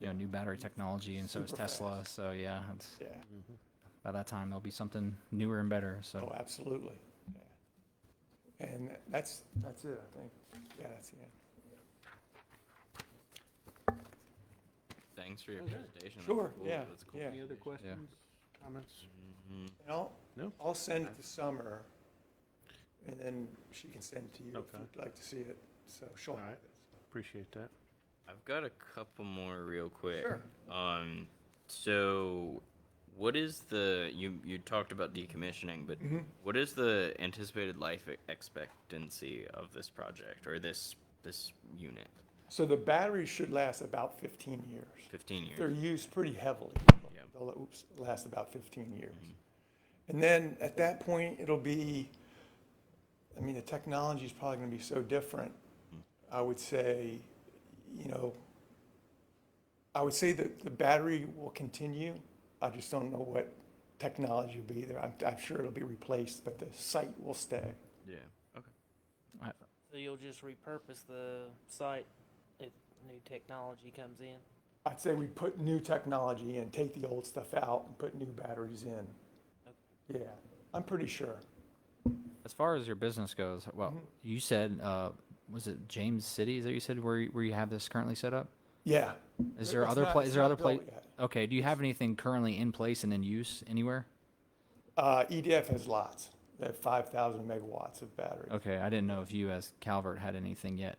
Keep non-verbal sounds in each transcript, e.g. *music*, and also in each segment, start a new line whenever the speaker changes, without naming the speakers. you know new battery technology, and so is
Super
Tesla. So yeah, it's,
Yeah, Mm-hmm.
by that time there'll be something newer and better. So
oh, absolutely, yeah. And that's, that's it, I think, yeah, that's it.
Thanks for your presentation. That's
Sure,
cool.
yeah,
That's cool. Mm-hmm.
yeah.
Any other questions, comments?
And I'll,
No.
I'll send it to Summer, and then she can send it to you if
Okay.
you'd like to see it, so she'll.
All right. Appreciate that.
I've got a couple more real quick.
Sure.
Um, so what is the you you talked about decommissioning, but
Mm-hmm.
what is the anticipated life e- expectancy of this project or this this unit?
So the batteries should last about fifteen years.
Fifteen years.
They're used pretty heavily.
Yep.
They'll la- oops, last about fifteen years. And then at that point, it'll be, I mean, the technology is probably gonna be so different. I would say, you know, I would say that the battery will continue. I just don't know what technology will be there. I'm, I'm sure it'll be replaced, but the site will stay.
Yeah. Okay.
So you'll just repurpose the site if new technology comes in?
I'd say we put new technology in, take the old stuff out and put new batteries in. Yeah, I'm pretty sure.
as far as your business goes, well,
Mm-hmm.
you said uh, was it James City is that you said where you- where you have this currently set up?
Yeah.
Is there
It's
other
not-
pla-
it's
is there
not
other pla-
built yet.
Okay, do you have anything currently in place and in use anywhere?
Uh, EDF has lots. They have 5,000 megawatts of battery.
Okay, I didn't know if you as Calvert had anything yet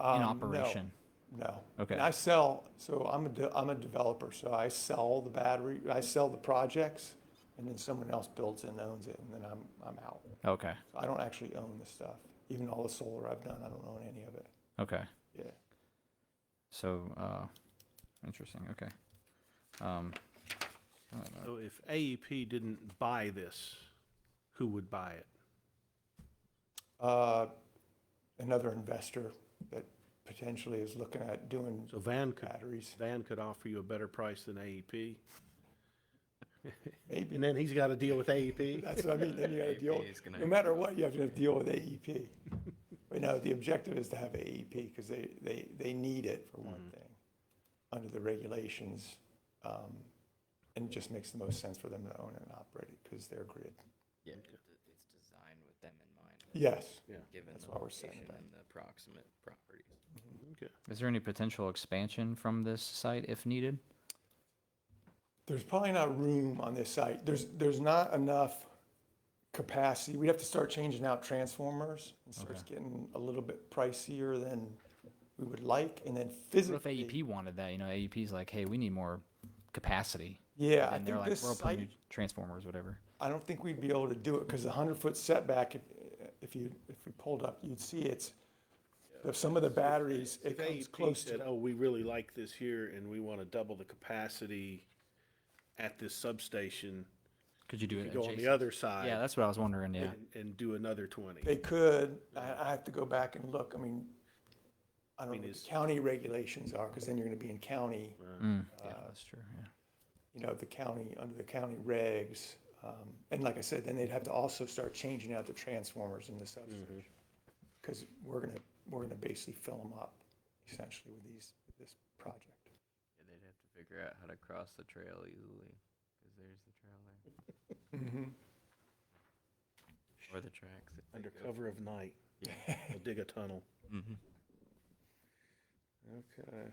Um,
in
no,
operation.
No.
Okay.
And I sell, so I'm a, de- I'm a developer, so I sell the battery, I sell the projects, and then someone else builds it and owns it, and then I'm, I'm out.
Okay,
So I don't actually own the stuff. Even all the solar I've done, I don't own any of it.
okay.
Yeah.
So, uh, interesting. Okay. Um, I don't know.
So if AEP didn't buy this, who would buy it?
Uh, another investor that potentially is looking at doing
So Van could,
batteries,
Van could offer you a E better price than AEP.
maybe.
And then he's got to deal with E AEP.
That's what I mean, then
*laughs*
you gotta deal,
AEP is gonna
no matter what, you have to deal with E AEP. But no, the objective is to have AEP, because they, they, they need it for
Mm-hmm.
one thing, under the regulations. um, And it just makes the most sense for them to own and operate it, because they're grid.
Yeah. It's designed with them in mind,
Yes,
given
That's
the
what we're saying
location
about
and the proximate properties.
Okay.
Is there any potential expansion from this site if needed?
there's probably not room on this site, there's, there's not enough capacity, we'd have to start changing out transformers. It starts getting a little bit pricier than we would like, and then
What if E
physically.
AEP wanted that? You know, AEP's like, hey, we need more capacity.
Yeah, I
and they're
think
like,
this
we'll put
site
new transformers, whatever.
I don't think we'd be able to do it because the hundred foot setback, if, if you, if we pulled up, you'd see it's, if some of the batteries, it
If
comes
AEP
close to,
said, oh, we really like this here and we want to double the capacity at this substation,
Could you do it?
go on the
adjacent?
other side.
Yeah, that's what I was wondering. Yeah.
and- And do another 20.
they could, I, I have to go back and look, I mean, I don't
mean,
know what
is-
the county regulations are, because then you're gonna be in county,
Mm, yeah, that's true. Yeah.
you know, the county, under the county regs. um, And like I said, then they'd have to also start changing out the transformers in the substation. Because we're gonna, we're gonna basically fill them up essentially with these, with this project.
Yeah, they'd have to figure out how to cross the trail easily, because there's the trail there. *laughs* Or the tracks. if they
Under
go.
cover of night.
Yeah.
They'll dig a tunnel.
Mhm.
Okay.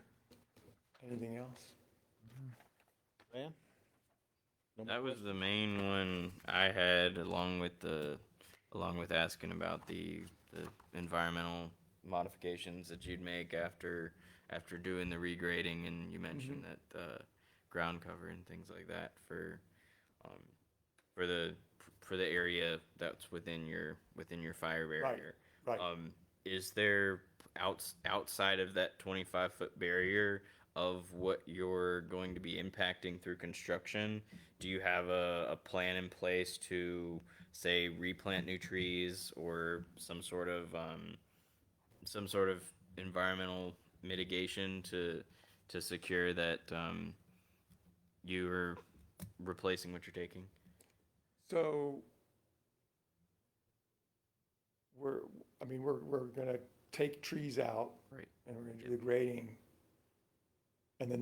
Anything else?
Van? No more
That was the main one I had, along with the, along with asking about the, the environmental modifications that you'd make after, after doing the regrading, and you mentioned that, uh, ground cover and things like that for, um, for the, for the area that's within your, within your fire barrier.
right.
Um, is there outs, outside of that twenty-five foot barrier of what you're going to be impacting through construction? Do you have a, a plan in place to say replant new trees or some sort of, um, some sort of environmental mitigation to, to secure that, um, you're replacing what you're taking?
So we're, I mean, we're, we're gonna take trees out
Right.
and we're gonna do the grading